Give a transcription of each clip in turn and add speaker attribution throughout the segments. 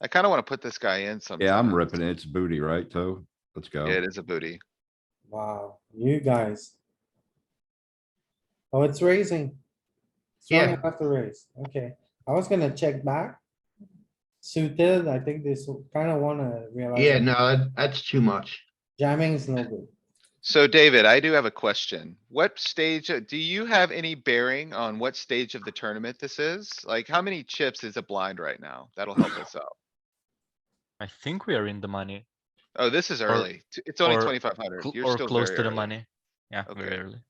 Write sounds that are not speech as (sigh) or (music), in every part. Speaker 1: I kinda wanna put this guy in sometime.
Speaker 2: Yeah, I'm ripping it. It's booty, right, Toe? Let's
Speaker 1: Yeah,
Speaker 2: go.
Speaker 1: it is a booty.
Speaker 3: Wow, you guys. Oh, it's raising. It's
Speaker 1: Yeah.
Speaker 3: running off the raise, okay. I was gonna check back. Suited, I think this kinda wanna realize.
Speaker 4: Yeah,
Speaker 3: that
Speaker 4: no, that- that's too much.
Speaker 3: Jamming is no good.
Speaker 1: So David, I do have a question. What stage, uh, do you have any bearing on what stage of the tournament this is? Like, how many chips is a blind right now? That'll help us out.
Speaker 5: I think we are in the money
Speaker 1: Oh, this is early. T- It's only
Speaker 5: or
Speaker 1: twenty-five hundred.
Speaker 5: cl-
Speaker 1: You're
Speaker 5: or
Speaker 1: still
Speaker 5: close
Speaker 1: very
Speaker 5: to the
Speaker 1: early.
Speaker 5: money. Yeah, very
Speaker 1: Okay.
Speaker 5: early.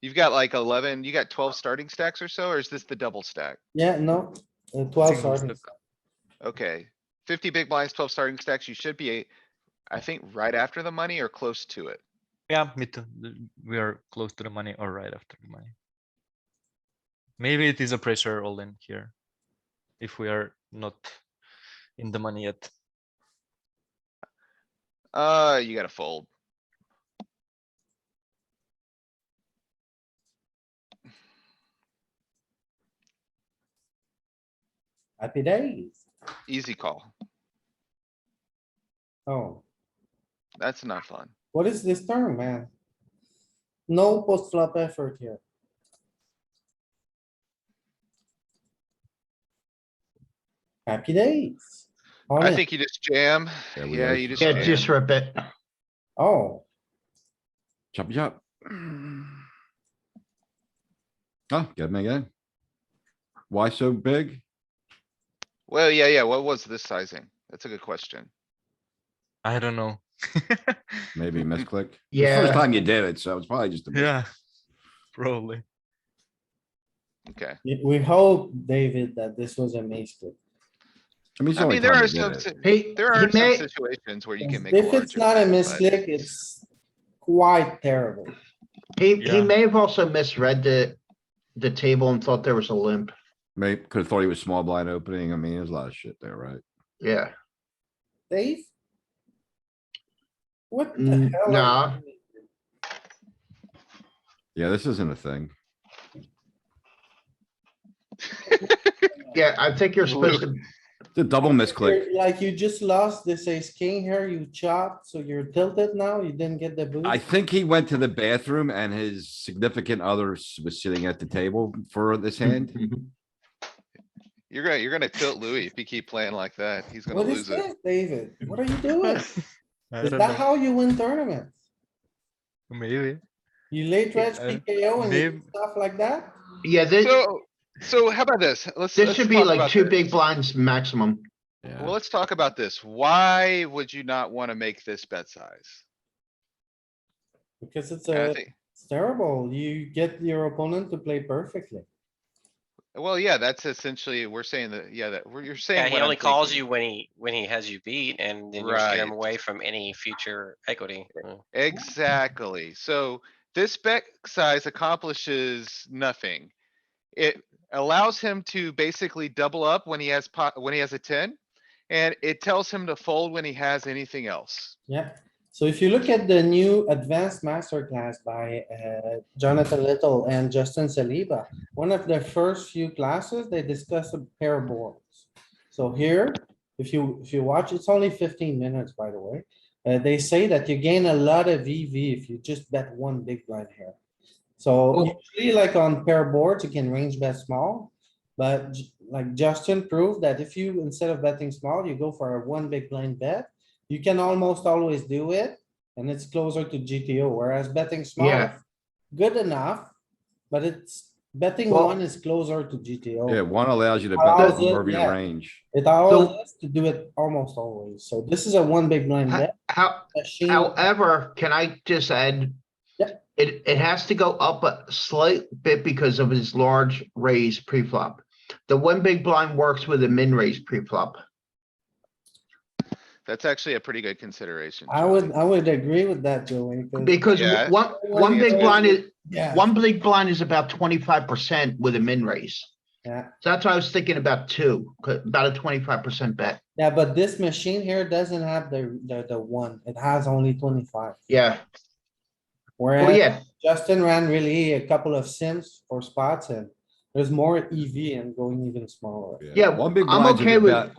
Speaker 1: You've got like eleven, you got twelve starting stacks or so, or is this the double stack?
Speaker 3: Yeah, no, uh, twelve, sorry.
Speaker 1: Okay, fifty big blinds, twelve starting stacks, you should be, I think, right after the money or close to it.
Speaker 5: Yeah, me too. The- We are close to the money or right after the money. Maybe it is a pressure all in here. If we are not in the money yet.
Speaker 1: Uh, you gotta fold.
Speaker 3: Happy days.
Speaker 1: Easy call.
Speaker 3: Oh,
Speaker 1: That's not fun.
Speaker 3: what is this term, man? No post flop effort here. Happy days. On
Speaker 1: I
Speaker 3: it.
Speaker 1: think you just jam.
Speaker 2: Yeah, we
Speaker 1: Yeah,
Speaker 2: gotta
Speaker 1: you just
Speaker 4: Yeah,
Speaker 1: jam.
Speaker 4: just rip it.
Speaker 3: Oh,
Speaker 2: Chop,
Speaker 1: (sighs)
Speaker 2: chop. Oh, get me again. Why so big?
Speaker 1: Well, yeah, yeah. What was this sizing? That's a good question.
Speaker 5: I don't know. (laughs)
Speaker 1: (laughs)
Speaker 2: Maybe misclick. It's the First
Speaker 4: Yeah,
Speaker 2: time you did it, so it's probably just a. mis-
Speaker 5: Yeah, probably.
Speaker 1: Okay.
Speaker 3: we- we hope, David, that this was a mistake.
Speaker 2: I mean, it's the
Speaker 1: I
Speaker 2: only
Speaker 1: mean, there
Speaker 2: time
Speaker 1: are
Speaker 2: you
Speaker 1: some,
Speaker 2: did it.
Speaker 1: si-
Speaker 4: he,
Speaker 1: there
Speaker 4: he
Speaker 1: are some
Speaker 4: may,
Speaker 1: situations where you can make. a
Speaker 3: If it's
Speaker 1: larger
Speaker 3: not a
Speaker 1: bet, but-
Speaker 3: misclick, it's quite terrible.
Speaker 4: he, he
Speaker 5: Yeah.
Speaker 4: may have also misread the, the table and thought there was a limp.
Speaker 2: May, could have thought he was small blind opening. I mean, there's a lot of shit there, right?
Speaker 4: Yeah,
Speaker 3: Dave? What the
Speaker 4: Mm,
Speaker 3: hell? are you
Speaker 4: nah.
Speaker 3: doing?
Speaker 2: Yeah, this isn't a thing.
Speaker 4: yeah, I think you're supposed to,
Speaker 2: It's a double misclick.
Speaker 3: You're- Like you just lost this ace king here, you chopped, so you're tilted now, you didn't get the boost.
Speaker 2: I think he went to the bathroom and his significant other s- was sitting at the table for this hand.
Speaker 4: (laughs)
Speaker 1: You're gonna, you're gonna tilt Louis if you keep playing like that. He's gonna
Speaker 3: What is
Speaker 1: lose it.
Speaker 3: this, David? What are
Speaker 5: (laughs)
Speaker 3: you doing?
Speaker 5: I
Speaker 3: Is
Speaker 5: don't
Speaker 3: that
Speaker 5: know.
Speaker 3: how you win tournaments?
Speaker 5: Maybe.
Speaker 3: You late
Speaker 5: Yeah,
Speaker 3: reg
Speaker 5: uh,
Speaker 3: PKO and you do
Speaker 5: Dave-
Speaker 3: stuff like that?
Speaker 4: yeah, this,
Speaker 1: So, so how about this? Let's.
Speaker 4: this
Speaker 1: let's
Speaker 4: should be
Speaker 1: talk
Speaker 4: like
Speaker 1: about
Speaker 4: two
Speaker 1: this.
Speaker 4: big blinds maximum.
Speaker 1: Well,
Speaker 2: Yeah,
Speaker 1: let's talk about this. Why would you not wanna make this bet size?
Speaker 3: Because it's
Speaker 1: And I
Speaker 3: a,
Speaker 1: think-
Speaker 3: it's terrible. You get your opponent to play perfectly.
Speaker 1: Well, yeah, that's essentially, we're saying that, yeah, that, we're- you're saying.
Speaker 6: Yeah, he
Speaker 1: what I'm
Speaker 6: only calls
Speaker 1: thinking.
Speaker 6: you when he, when he has you beat and then you steer
Speaker 1: Right.
Speaker 6: him
Speaker 1: Eh,
Speaker 6: away from any future equity. Mm.
Speaker 1: Exactly. So this bet size accomplishes nothing. It allows him to basically double up when he has pot, when he has a ten. And it tells him to fold when he has anything else.
Speaker 3: Yeah, so if you look at the new advanced masterclass by uh, Jonathan Little and Justin Saliba, one of the first few classes, they discuss a pair boards. So here, if you, if you watch, it's only fifteen minutes, by the way. Uh, they say that you gain a lot of EV if you just bet one big blind here. So
Speaker 4: Cool.
Speaker 3: usually like on pair boards, you can range bet small. But j- like Justin proved that if you, instead of betting small, you go for a one big blind bet, you can almost always do it, and it's closer to GTO, whereas betting small,
Speaker 4: Yeah.
Speaker 3: is good enough, but it's, betting
Speaker 4: Well-
Speaker 3: one is closer to
Speaker 2: yeah,
Speaker 3: GTO.
Speaker 2: one allows you to bet that
Speaker 3: Allows it,
Speaker 2: proverbial
Speaker 3: yeah.
Speaker 2: range.
Speaker 3: It allows us to do it almost always, so this is a one big blind
Speaker 4: Huh?
Speaker 3: bet.
Speaker 4: How,
Speaker 3: machine.
Speaker 4: however, can I just add?
Speaker 3: Yeah.
Speaker 4: It, it has to go up a slight bit because of his large raise pre-flop. The one big blind works with a min raise pre-flop.
Speaker 1: That's actually a pretty good consideration.
Speaker 3: I
Speaker 1: Johnny.
Speaker 3: would, I would agree with that, Joey, 'cause-
Speaker 4: Because
Speaker 1: Mm. Yeah.
Speaker 4: one, one
Speaker 3: Yeah.
Speaker 4: big blind is,
Speaker 3: yeah,
Speaker 4: one big blind is about twenty-five percent with a min raise.
Speaker 3: yeah,
Speaker 4: So that's why I was thinking about two, co- about a twenty-five percent bet.
Speaker 3: yeah, but this machine here doesn't have the, the, the one, it has only twenty-five.
Speaker 4: Yeah, well,
Speaker 3: Whereas
Speaker 4: yeah,
Speaker 3: Justin ran really a couple of sims for spots and there's more EV and going even smaller.
Speaker 4: Yeah,
Speaker 2: One big
Speaker 4: I'm
Speaker 2: blind's a
Speaker 4: okay
Speaker 2: good
Speaker 4: with-
Speaker 2: bet.